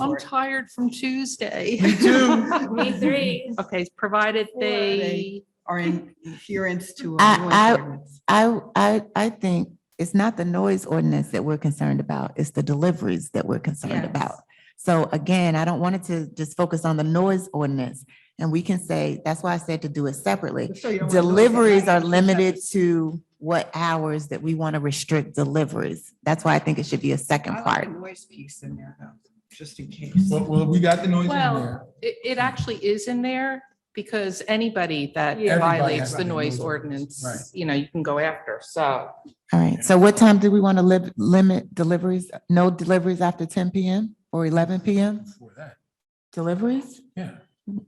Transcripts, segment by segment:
I'm tired from Tuesday. Me too. Me three. Okay, provided they, Are in adherence to. I- our noise I- ordinance. I, I, I think it's not the noise ordinance that we're concerned about, it's the deliveries that we're concerned Yes. about. So again, I don't want it to just focus on the noise ordinance. And we can say, that's why I said to do it separately. So you don't wanna noise it. Deliveries are limited to what hours that we want to restrict deliveries. That's why I think it should be a I second like part. the Noise piece in there though, just in case. Well, well, we got the noise in there. well, it, it actually is in there because anybody that Everybody violates has the to noise noise ordinance, ordinance, you know, you can go after, so. All right, so what time do we want to live, limit deliveries? No deliveries after ten PM or eleven PM? Before that, Deliveries? yeah.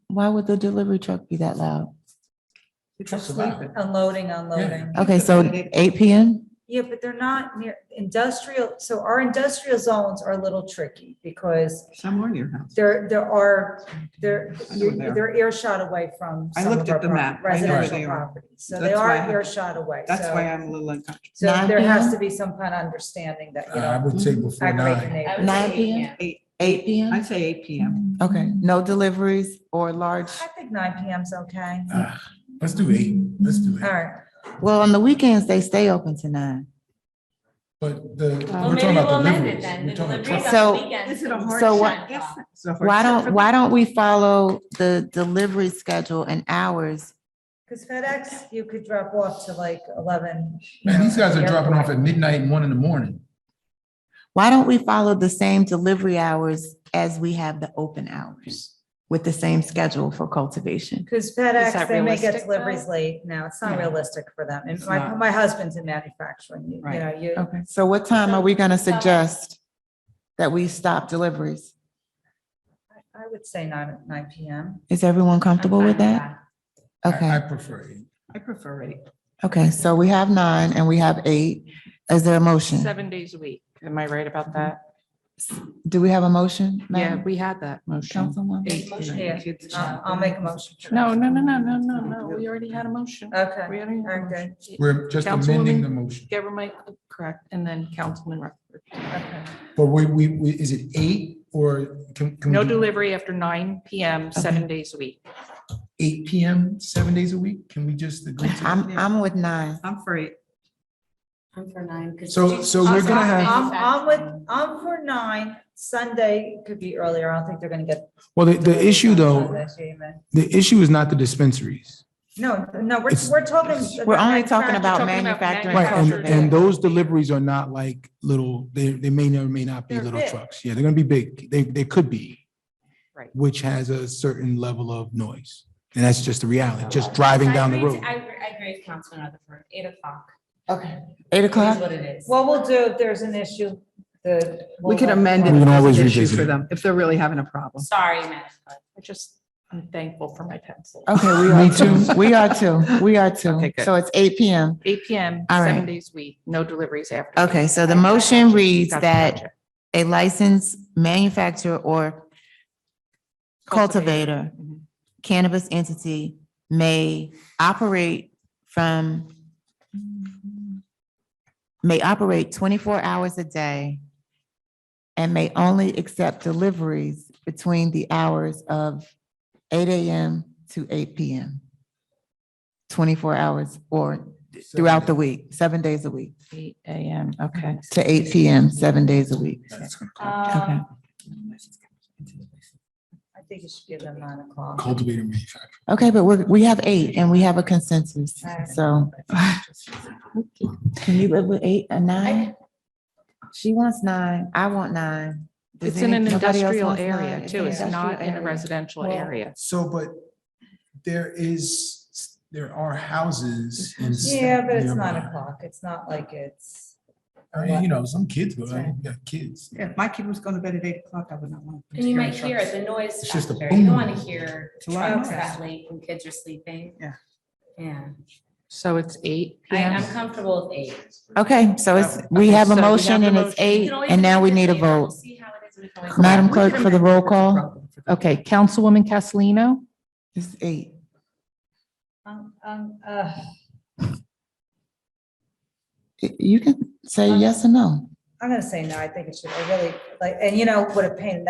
Why would the delivery truck be that loud? Trucks are loud. Unloading, unloading. Okay, so eight PM? Yeah, but they're not near industrial, so our industrial zones are a little tricky because Somewhere near your house. there, there are, they're, I know where they are. they're earshot away from I some of looked our at the prop- map. I know where Residential they are. properties, so they That's why are I- earshot away. That's so- why I'm a little uncomfortable. So Nine there has PM? to be some kind of understanding that, you Uh, I know, would say before aggravate the nine. neighbor. Nine PM? Eight, Eight PM? I'd say eight PM. Okay, no deliveries or large, I think nine PM's okay. Uh, Ah, Let's do eight, let's do All it. right. well, on the weekends, they stay open to nine. But the, we're Well, talking maybe we'll about amend it deliveries. then. We're The talking about deliveries trucks. So- on the weekends. Is it a hard So shut what- off. Yes. Why don't, why don't we follow the delivery schedule and hours? Because FedEx, you could drop off to like eleven. you Man, know, these guys are the dropping airport. off at midnight and one in the morning. Why don't we follow the same delivery hours as we have the open hours? With the same schedule for cultivation? Because that FedEx, they may realistic, get deliveries though? late. No, it's not No. realistic for them. And It's my, not. my husband's in manufacturing, you you Right. know, you, Okay, so what time are we gonna suggest that we stop deliveries? I would say nine, nine PM. Is everyone comfortable with that? I- Okay. I prefer eight. I prefer eight. Okay, so we have nine and we have eight. Is there a motion? Seven days a week, am I right about that? Mm-hmm. Do we have a motion? Yeah, Madam we had that motion. Councilwoman? Eight. Yeah, Kids I'll chat. Uh, I'll make a motion. No, no, no, no, no, no, no, we already had a motion. Uh, Okay, We already had a Okay. motion. We're just amending the motion. Gabor Mike, correct, and then Councilman Rutherford. okay. But we, we, we, is it eight or can, can we No do delivery after nine PM, seven days a week. eight PM, seven days a week? Can we just agree to? that? I'm, I'm with nine. I'm for eight. I'm for nine. 'cause So, she's- so we're she's gonna off have, I'm, I'm with, I'm for nine. Sunday could be earlier. I don't think they're gonna get. well, the, the deliveries issue on though, Sunday, Shaman. the issue is not the dispensaries. No, no, we're, It's- we're talking. We're only talking manufacturing. about talking about manufacturing. Right, and, and Manufactured. those deliveries are not like little, they, they may or may not be They're little big. trucks. Yeah, they're gonna be big. They, they could be. Right. Which has a certain level of noise. And that's just the reality, just driving I down the agree to- road. I agree- I agree with Councilman Rutherford, eight o'clock. Okay. Eight It is o'clock? what it is. What we'll do if there's an issue, the. We we'll Um, could let- amend it. We if there's an can always issue revisit For it. them, if they're really having a problem. Sorry, Madam Clerk. I just, I'm thankful for my pencil. Okay, we Me are two. We are two. We are two. Okay, good. So it's eight PM. Eight PM, All right. seven days a week, no deliveries after. Okay, so the motion reads Gotcha, that gotcha. a licensed manufacturer or cultivator Mhm. cannabis entity may operate from may operate twenty-four hours a day and may only accept deliveries between the hours of eight AM to eight PM. Twenty-four hours or throughout the week, seven days a week, Eight AM, okay. to eight PM, seven days a week. That's gonna Uh, Okay. Um, I think you should give them nine call- o'clock. Cultivator manufacturer. Okay, but we're, we have eight and we have a consensus, All right. so. Can you live with eight and nine? She wants nine, I want nine. Does It's in an any- nobody else industrial wants nine? area an too. It's not industrial in a area. residential Well- area. So, but there is, there are houses. in Yeah, but it's nine nearby. o'clock. It's not like it's. I mean, You know, some kids, go out, you got kids. Yeah, If my kid was going to bed at eight o'clock, I would not want. them And you to might hear trucks. the noise It's just a factor. You don't boom. want to hear It's a lot of trucks noise. that late when kids are sleeping. Yeah. Yeah, So it's eight I, PM. I'm comfortable with eight. Okay, so it's, we Okay, have so a we have motion the and it's motion. You You eight, can always and now we amend it need a later. We'll vote. See how it is. when we come back. Madam We can Clerk, for the amend it roll if there's a call. problem for them. Okay, Councilwoman Castellino, It's eight. Um, um, uh, Y- You can say yes or no. I'm gonna say no, I think it should, I really, like, and you know, what a pain in the